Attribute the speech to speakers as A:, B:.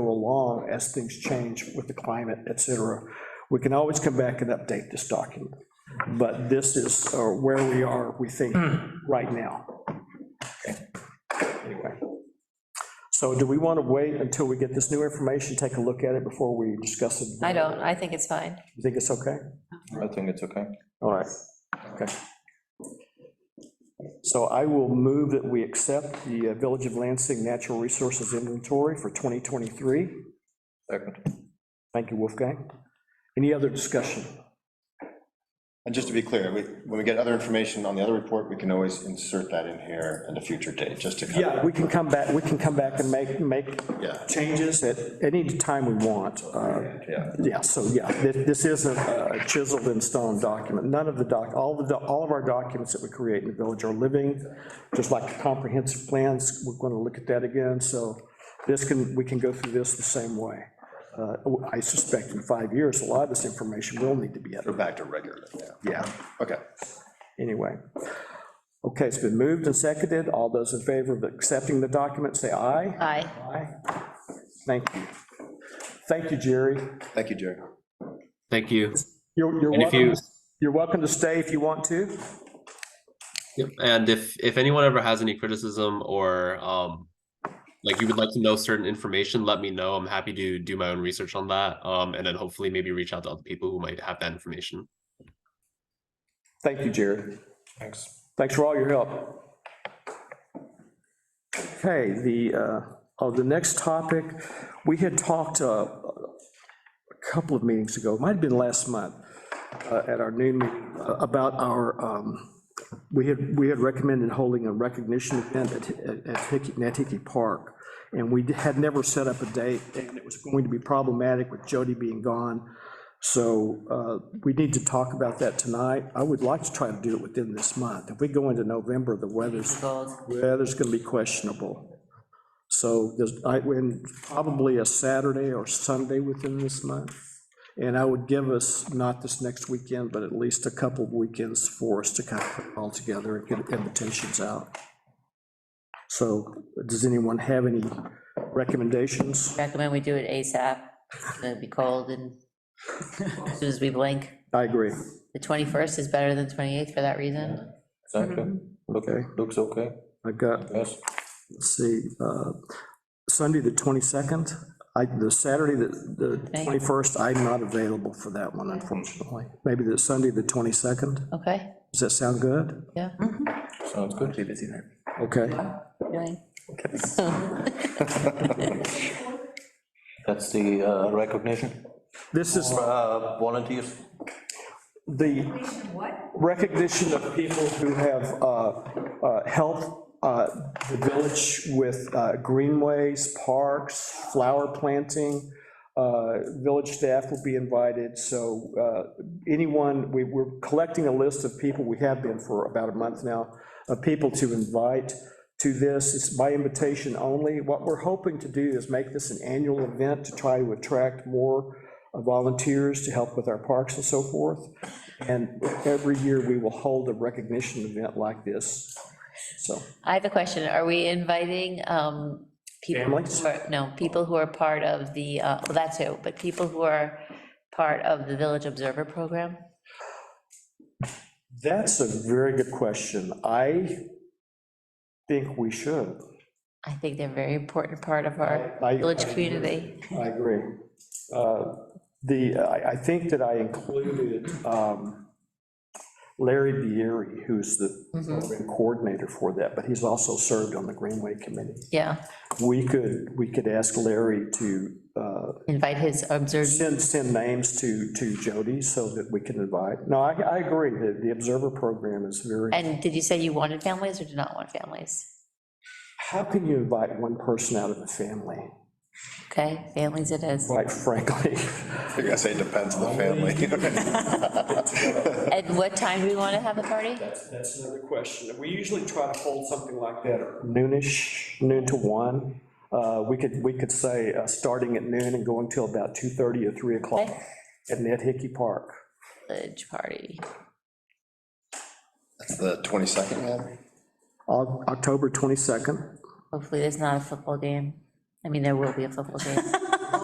A: go along as things change with the climate, et cetera. We can always come back and update this document, but this is uh, where we are, we think,
B: Hmm.
A: right now. Anyway. So do we want to wait until we get this new information, take a look at it before we discuss it?
B: I don't, I think it's fine.
A: You think it's okay?
C: I think it's okay.
A: All right, okay. So I will move that we accept the uh, Village of Lansing Natural Resources Inventory for 2023.
C: Second.
A: Thank you, Wolfgang. Any other discussion?
D: And just to be clear, we- when we get other information on the other report, we can always insert that in here at a future date, just to kind
A: Yeah,
D: of,
A: we can come back, we can come back and make, make
D: Yeah.
A: changes at any time we want. Uh,
D: yeah.
A: Yeah, so, yeah, thi- this isn't a chiseled in stone document. None of the doc, all the, do- all of our documents that we create in the village are living, just like the comprehensive plans, we're going to look at that again, so this can, we can go through this the same way. Uh, I suspect in five years, a lot of this information will need to be
D: Go
A: edited.
D: back to regular, yeah.
A: Yeah.
D: Okay.
A: Anyway. Okay, it's been moved and seconded. All those in favor of accepting the document, say aye.
B: Aye.
A: Aye. Thank you. Thank you, Jerry.
D: Thank you, Jerry.
E: Thank you.
A: You're, you're
E: And if you,
A: welcome, you're welcome to stay if you want to.
E: Yep, and if, if anyone ever has any criticism or, um, like you would like to know certain information, let me know. I'm happy to do my own research on that. Um, and then hopefully maybe reach out to other people who might have that information.
A: Thank you, Jerry.
C: Thanks.
A: Thanks for all your help. Okay, the, uh, oh, the next topic, we had talked uh, a couple of meetings ago, might have been last month, uh, at our noon, meeting, uh, about our, um, we had, we had recommended holding a recognition event at at- at Hickey- Nantucket Park, and we had never set up a date, and it was going to be problematic with Jody being gone. So uh, we need to talk about that tonight. I would like to try to do it within this month. If we go into November, the weather's,
B: Goals.
A: weather's going to be questionable. So there's, I, when, probably a Saturday or Sunday within this month. And I would give us, not this next weekend, but at least a couple of weekends for us to kind of put it all together and get invitations out. So does anyone have any recommendations?
B: Recommend we do it ASAP. It's going to be cold and as soon as we blink.
A: I agree.
B: The 21st is better than 28th for that reason.
C: Exactly. Look-
A: Okay.
C: Looks okay,
A: I've got
C: yes.
A: let's see, uh, Sunday, the 22nd, I, the Saturday, the the
B: Okay.
A: 21st, I'm not available for that one, unfortunately. Maybe the Sunday, the 22nd,
B: Okay,
A: does that sound good?
B: yeah.
C: Sounds good. Be busy there.
A: Okay,
B: Right.
C: That's the uh, recognition,
A: this is
C: uh, volunteers.
A: the recognition of people who have uh, uh, helped uh, the village with uh, greenways, parks, flower planting. Uh, Village staff will be invited, so uh, anyone, we- we're collecting a list of people, we have been for about a month now, of people to invite to this. It's by invitation only. What we're hoping to do is make this an annual event to try to attract more volunteers to help with our parks and so forth. And every year, we will hold a recognition event like this, so.
B: I have a question. Are we inviting um, people? who
A: Families?
B: are- No, people who are part of the, uh, well, that too, but people who are part of the Village Observer Program?
A: That's a very good question. I think we should.
B: I think they're a very important part of our
A: I-
B: village community.
A: I agree. Uh, The, I, I think that I included um, Larry Bieri, who's the
B: Mm-hmm.
A: program coordinator for that, but he's also served on the Greenway Committee.
B: Yeah,
A: We could, we could ask Larry to uh,
B: invite his observer.
A: send, send names to, to Jody so that we can invite. No, I, I agree, the, the observer program is very,
B: And did you say you wanted families or did not want families?
A: how can you invite one person out of the family,
B: Okay, families it is.
A: quite frankly?
D: I think I say it depends on the family.
B: And what time do we want to have the party?
A: That's another question. We usually try to hold something like that. Noonish, noon to one. Uh, we could, we could say, uh, starting at noon and going till about 2:30 or 3 o'clock
B: Okay.
A: at Ned Hickey Park.
B: Village party.
D: That's the 22nd, yeah?
A: Oc- October 22nd.
B: Hopefully there's not a football game. I mean, there will be a football game.